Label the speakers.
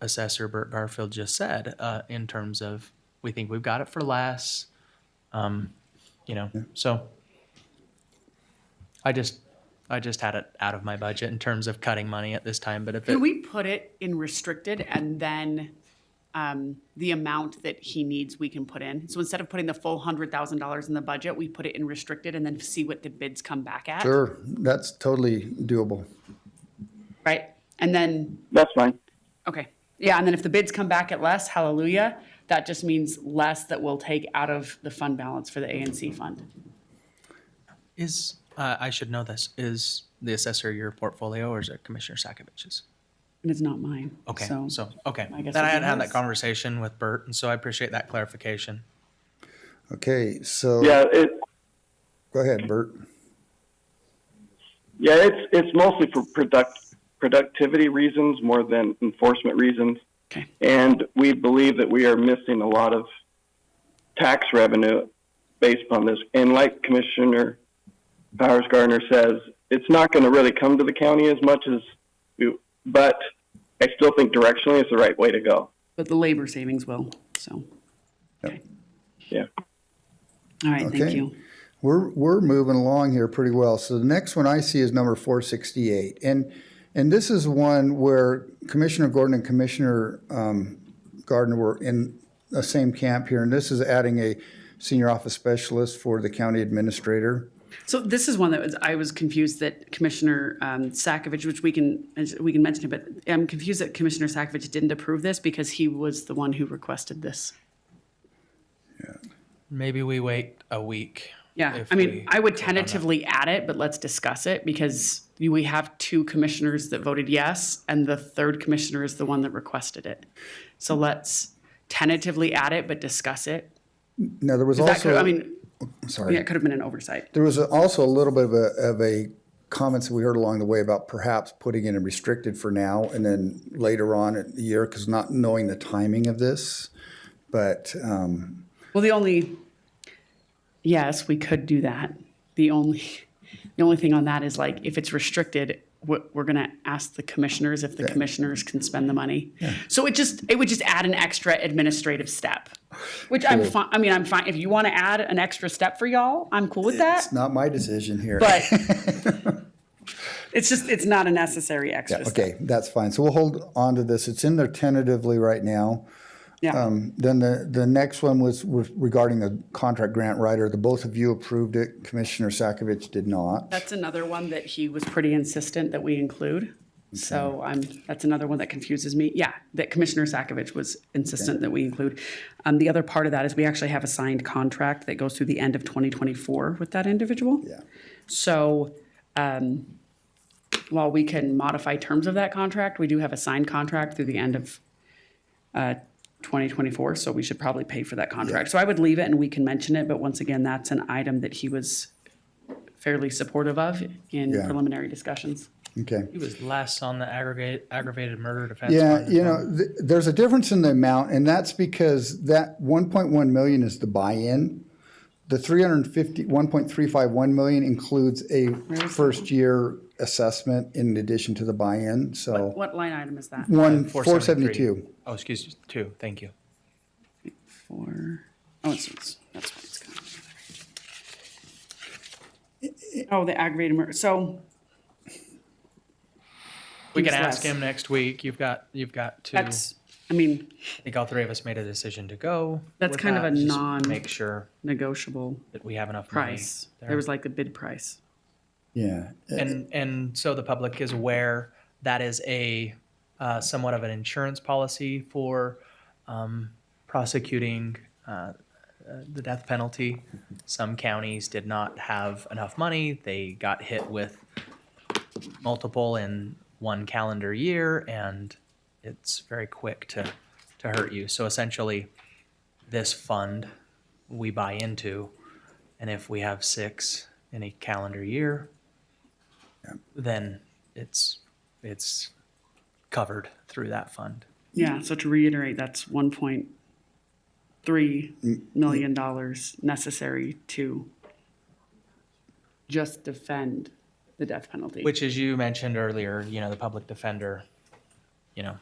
Speaker 1: Assessor Burt Garfield just said, uh, in terms of, we think we've got it for less. Um, you know, so I just, I just had it out of my budget in terms of cutting money at this time, but if
Speaker 2: Can
Speaker 1: it,
Speaker 2: we put it in restricted and then um, the amount that he needs, we can put in? So instead of putting the full hundred thousand dollars in the budget, we put it in restricted and then see what the bids come back at?
Speaker 3: Sure, that's totally doable.
Speaker 2: Right? And then,
Speaker 4: That's fine.
Speaker 2: okay, yeah, and then if the bids come back at less, hallelujah, that just means less that we'll take out of the fund balance for the ANC fund.
Speaker 1: is, uh, I should know this, is the assessor your portfolio or is it Commissioner Sakovich's?
Speaker 2: And it's not mine.
Speaker 1: Okay, so, okay.
Speaker 2: I guess
Speaker 1: Then I had
Speaker 2: it'd be
Speaker 1: had
Speaker 2: his.
Speaker 1: that conversation with Bert, and so I appreciate that clarification.
Speaker 3: Okay, so
Speaker 4: Yeah, it,
Speaker 3: go ahead, Bert.
Speaker 4: yeah, it's it's mostly for product productivity reasons more than enforcement reasons.
Speaker 2: Okay.
Speaker 4: And we believe that we are missing a lot of tax revenue based upon this. And like Commissioner Powers Gardner says, it's not going to really come to the county as much as, we, but I still think directionally it's the right way to go.
Speaker 2: But the labor savings will, so, okay.
Speaker 4: Yeah.
Speaker 2: All right, thank
Speaker 3: Okay.
Speaker 2: you.
Speaker 3: We're, we're moving along here pretty well. So the next one I see is number 468. And, and this is one where Commissioner Gordon and Commissioner um, Gardner were in the same camp here. And this is adding a senior office specialist for the county administrator.
Speaker 2: So this is one that was, I was confused that Commissioner um, Sakovic, which we can, we can mention it, but I'm confused that Commissioner Sakovic didn't approve this because he was the one who requested this.
Speaker 1: Maybe we wait a week.
Speaker 2: Yeah,
Speaker 1: if
Speaker 2: I mean,
Speaker 1: we-
Speaker 2: I would tentatively add it, but let's discuss it because we have two commissioners that voted yes, and the third commissioner is the one that requested it. So let's tentatively add it, but discuss it.
Speaker 3: Now, there was
Speaker 2: That could, I
Speaker 3: also,
Speaker 2: mean,
Speaker 3: sorry.
Speaker 2: yeah, it could have been an oversight.
Speaker 3: There was also a little bit of a, of a comments that we heard along the way about perhaps putting it in restricted for now and then later on in the year, because not knowing the timing of this. But, um,
Speaker 2: Well, the only, yes, we could do that. The only, the only thing on that is like, if it's restricted, we're, we're gonna ask the commissioners if the commissioners can spend the money. So it just, it would just add an extra administrative step, which I'm fine, I mean, I'm fine, if you wanna add an extra step for y'all, I'm cool with that,
Speaker 3: it's not my decision here.
Speaker 2: but it's just, it's not a necessary extra step.
Speaker 3: Okay, that's fine. So we'll hold on to this. It's in there tentatively right now.
Speaker 2: Yeah,
Speaker 3: um, Then the, the next one was, was regarding the contract grant writer. The both of you approved it. Commissioner Sakovic did not.
Speaker 2: that's another one that he was pretty insistent that we include. So I'm, that's another one that confuses me. Yeah, that Commissioner Sakovic was insistent that we include. Um, the other part of that is we actually have a signed contract that goes through the end of 2024 with that individual.
Speaker 3: Yeah.
Speaker 2: So, um, while we can modify terms of that contract, we do have a signed contract through the end of, uh, 2024, so we should probably pay for that contract. So I would leave it and we can mention it, but once again, that's an item that he was fairly supportive of in
Speaker 3: Yeah.
Speaker 2: preliminary discussions.
Speaker 3: Okay.
Speaker 1: He was less on the aggregate aggravated murder defense.
Speaker 3: Yeah,
Speaker 1: fund.
Speaker 3: you know, th- there's a difference in the amount, and that's because that 1.1 million is the buy-in. The 350, 1.351 million includes a first-year assessment in addition to the buy-in, so.
Speaker 2: What line item is that?
Speaker 3: One,
Speaker 1: 473.
Speaker 3: 472.
Speaker 1: Oh, excuse me, two, thank you.
Speaker 2: Four, oh, it's, it's, that's what it's got. Oh, the aggravated murder, so
Speaker 1: We can
Speaker 2: He's
Speaker 1: ask
Speaker 2: less.
Speaker 1: him next week. You've got, you've got two. I
Speaker 2: that's, I mean,
Speaker 1: think all three of us made a decision to go.
Speaker 2: That's
Speaker 1: with
Speaker 2: kind of
Speaker 1: that.
Speaker 2: a
Speaker 1: Just
Speaker 2: non-
Speaker 1: Make sure
Speaker 2: negotiable
Speaker 1: that we have enough money.
Speaker 2: price. There was like the bid price.
Speaker 3: Yeah,
Speaker 1: And, and so the public is aware that is a uh, somewhat of an insurance policy for um, prosecuting uh, uh, the death penalty. Some counties did not have enough money. They got hit with multiple in one calendar year, and it's very quick to, to hurt you. So essentially, this fund we buy into, and if we have six in a calendar year, then it's, it's covered through that fund.
Speaker 2: Yeah, so to reiterate, that's one point three million dollars necessary to just defend the death penalty.
Speaker 1: Which, as you mentioned earlier, you know, the public defender, you know,